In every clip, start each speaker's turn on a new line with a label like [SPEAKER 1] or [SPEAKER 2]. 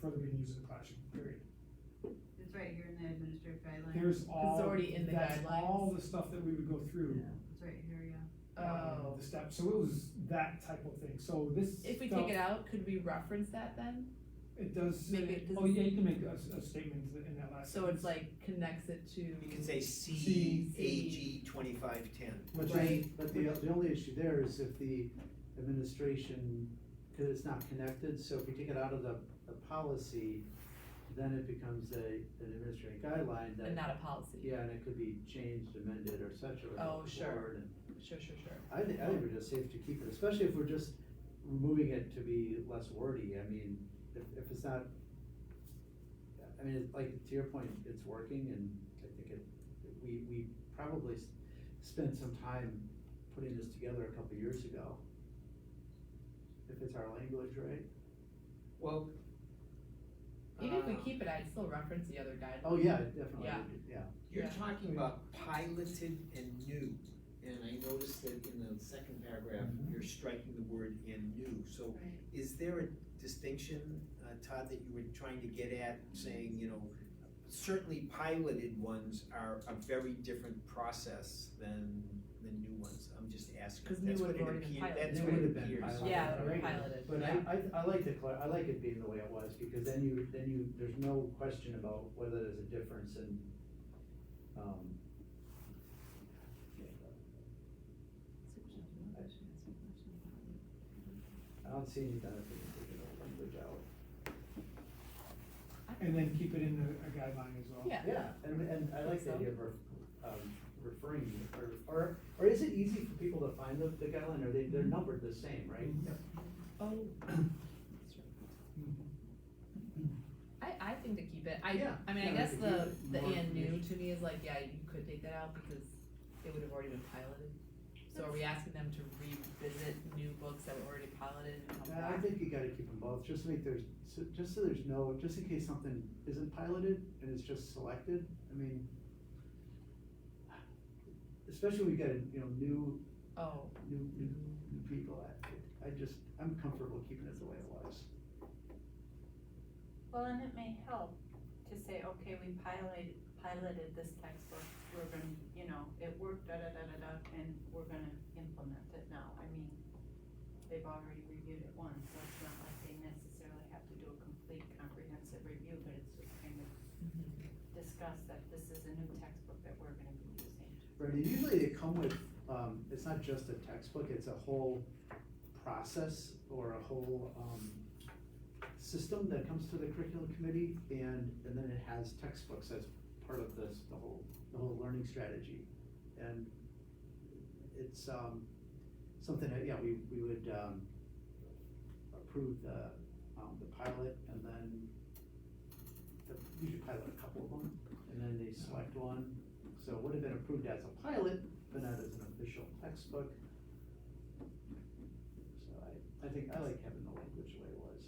[SPEAKER 1] for the being used in the classroom, period.
[SPEAKER 2] It's right here in the administrative guidelines.
[SPEAKER 1] There's all,
[SPEAKER 3] already in the
[SPEAKER 1] that's
[SPEAKER 3] guidelines.
[SPEAKER 1] all the stuff that we would go through,
[SPEAKER 2] It's right here, yeah.
[SPEAKER 1] um,
[SPEAKER 3] Oh,
[SPEAKER 1] the steps, so it was that type of thing, so this
[SPEAKER 3] if we
[SPEAKER 1] felt-
[SPEAKER 3] take it out, could we reference that then?
[SPEAKER 1] It does, say-
[SPEAKER 3] Make it-
[SPEAKER 1] oh yeah, you can make a, s- a statement in that last.
[SPEAKER 3] So it's
[SPEAKER 1] sentence,
[SPEAKER 3] like connects it to.
[SPEAKER 4] You can say
[SPEAKER 1] C.
[SPEAKER 4] C A G twenty-five ten.
[SPEAKER 5] Which is,
[SPEAKER 3] Right.
[SPEAKER 5] but the, the only issue there is if the administration, cause it's not connected, so if we take it out of the, the policy, then it becomes a, an administrative guideline
[SPEAKER 3] And
[SPEAKER 5] that,
[SPEAKER 3] not a policy.
[SPEAKER 5] yeah, and it could be changed, amended, or such, or.
[SPEAKER 3] Oh, sure.
[SPEAKER 5] altered, and-
[SPEAKER 3] Sure, sure, sure.
[SPEAKER 5] I think, I think we're just safe to keep it, especially if we're just removing it to be less wordy, I mean, if, if it's not. I mean, it's like, to your point, it's working and I think it, we, we probably s- spent some time putting this together a couple years ago. If it's our language, right?
[SPEAKER 4] Well.
[SPEAKER 3] Even if we
[SPEAKER 4] uh,
[SPEAKER 3] keep it, I'd still reference the other guidelines.
[SPEAKER 5] Oh, yeah, definitely,
[SPEAKER 3] Yeah.
[SPEAKER 5] yeah,
[SPEAKER 4] You're
[SPEAKER 3] Yeah.
[SPEAKER 4] talking about piloted and new, and I noticed that in the second paragraph,
[SPEAKER 5] Mhm.
[SPEAKER 4] you're striking the word and new, so
[SPEAKER 2] Right.
[SPEAKER 4] is there a distinction, uh, Todd, that you were trying to get at, saying, you know, certainly piloted ones are a very different process than the new ones, I'm just asking,
[SPEAKER 3] 'Cause new
[SPEAKER 4] that's what
[SPEAKER 3] would've
[SPEAKER 4] it
[SPEAKER 3] already been
[SPEAKER 4] appears,
[SPEAKER 3] piloted.
[SPEAKER 4] that's
[SPEAKER 5] They
[SPEAKER 4] what it
[SPEAKER 5] would've been
[SPEAKER 4] appears.
[SPEAKER 5] piloted.
[SPEAKER 3] Yeah,
[SPEAKER 5] Right.
[SPEAKER 3] piloted,
[SPEAKER 5] but
[SPEAKER 3] yeah.
[SPEAKER 5] I, I, I like the, clar- I like it being the way it was, because then you, then you, there's no question about whether there's a difference in, um. I don't see any benefit in taking the language out.
[SPEAKER 1] And then keep it in the, a guideline as well.
[SPEAKER 3] Yeah.
[SPEAKER 5] Yeah, and, and I like the idea of, ref- um, referring, or, or, or is it easy for people to find the, the guideline, or they, they're numbered the same, right?
[SPEAKER 1] Mhm.
[SPEAKER 3] Oh.
[SPEAKER 1] Mhm.
[SPEAKER 3] I, I think to keep it, I,
[SPEAKER 5] Yeah.
[SPEAKER 3] I mean, I
[SPEAKER 5] Yeah,
[SPEAKER 3] guess
[SPEAKER 5] we could
[SPEAKER 3] the,
[SPEAKER 5] use it
[SPEAKER 3] the
[SPEAKER 5] more
[SPEAKER 3] and new
[SPEAKER 5] information.
[SPEAKER 3] to me is like, yeah, you could take that out because it would have already been piloted. So are we asking them to revisit new books that were already piloted and come
[SPEAKER 5] Uh, I
[SPEAKER 3] back?
[SPEAKER 5] think you gotta keep them both, just to make there's, so- just so there's no, just in case something isn't piloted and it's just selected, I mean. Especially we got, you know, new,
[SPEAKER 3] Oh,
[SPEAKER 5] new, new, new people, I, I just, I'm comfortable keeping it the way it was.
[SPEAKER 6] Well, and it may help to say, okay, we piloted, piloted this textbook, we're gonna, you know, it worked, da, da, da, da, da, and we're gonna implement it now. I mean, they've already reviewed it once, so it's not like they necessarily have to do a complete comprehensive review, but it's just kind of
[SPEAKER 3] mm-hmm.
[SPEAKER 6] discuss that this is a new textbook that we're gonna be using.
[SPEAKER 5] Right, and usually they come with, um, it's not just a textbook, it's a whole process or a whole, um, system that comes to the curriculum committee and, and then it has textbooks as part of this, the whole, the whole learning strategy. And it's, um, something that, yeah, we, we would, um, approve the, um, the pilot and then the, we should pilot a couple of them and then they select one so it would have been approved as a pilot, but not as an official textbook. So I, I think, I like having the language the way it was.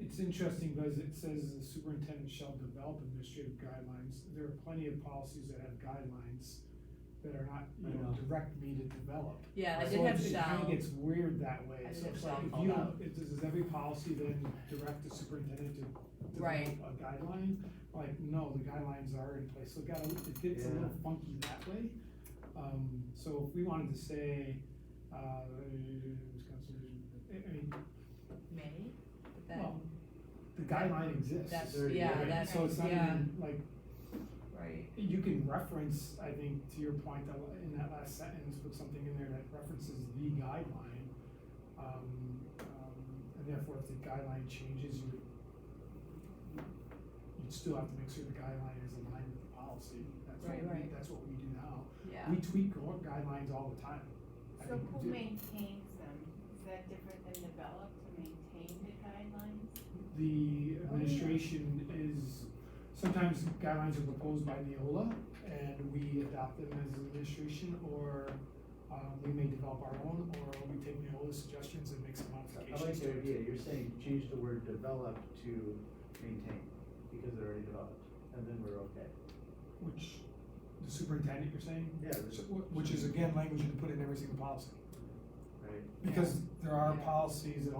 [SPEAKER 1] It's interesting because it says the superintendent shall develop administrative guidelines. There are plenty of policies that have guidelines that are not,
[SPEAKER 5] I
[SPEAKER 1] you know,
[SPEAKER 5] know.
[SPEAKER 1] direct me to develop.
[SPEAKER 3] yeah, I
[SPEAKER 1] So
[SPEAKER 3] did have
[SPEAKER 1] it's- It
[SPEAKER 3] shall.
[SPEAKER 1] kinda gets weird that way.
[SPEAKER 3] I did
[SPEAKER 1] So
[SPEAKER 3] have
[SPEAKER 1] it's like
[SPEAKER 3] shall
[SPEAKER 1] if
[SPEAKER 3] called
[SPEAKER 1] you,
[SPEAKER 3] out.
[SPEAKER 1] if this is every policy then direct the superintendent to
[SPEAKER 3] Right.
[SPEAKER 1] develop a guideline, like, no, the guidelines are in place. So it got, a- it gets a little
[SPEAKER 5] Yeah.
[SPEAKER 1] funky that way. Um, so if we wanted to say, uh, I I mean,
[SPEAKER 3] May, but then,
[SPEAKER 1] Well, the guideline exists.
[SPEAKER 3] That's-
[SPEAKER 5] There you go.
[SPEAKER 3] yeah,
[SPEAKER 1] Right,
[SPEAKER 3] that's,
[SPEAKER 1] So it's not
[SPEAKER 3] yeah,
[SPEAKER 1] even, like,
[SPEAKER 3] right.
[SPEAKER 1] you can reference, I think, to your point, that la- in that last sentence, put something in there that references the guideline. Um, um, and therefore, if the guideline changes, you, you'd still have to make sure the guideline is aligned with the policy. That's what
[SPEAKER 3] Right,
[SPEAKER 1] we,
[SPEAKER 3] right.
[SPEAKER 1] that's what we do now.
[SPEAKER 3] Yeah.
[SPEAKER 1] We tweak gu- guidelines all the time. I
[SPEAKER 6] So
[SPEAKER 1] mean,
[SPEAKER 6] who
[SPEAKER 1] do-
[SPEAKER 6] maintains them? Is that different than develop to maintain the guidelines?
[SPEAKER 1] the administration is, sometimes guidelines are proposed by Neola and we adopt them as an administration or um, we may develop our own or we take Neola's suggestions and make some
[SPEAKER 5] So I like
[SPEAKER 1] modifications
[SPEAKER 5] the
[SPEAKER 1] to it.
[SPEAKER 5] idea, you're saying change the word develop to maintain, because they're already developed, and then we're okay.
[SPEAKER 1] Which, the superintendent, you're saying?
[SPEAKER 5] Yeah,
[SPEAKER 1] So,
[SPEAKER 5] there's-
[SPEAKER 1] wh- Which is again, language you can put in every single policy.
[SPEAKER 5] right.
[SPEAKER 1] Because there are
[SPEAKER 3] Yeah.
[SPEAKER 1] policies that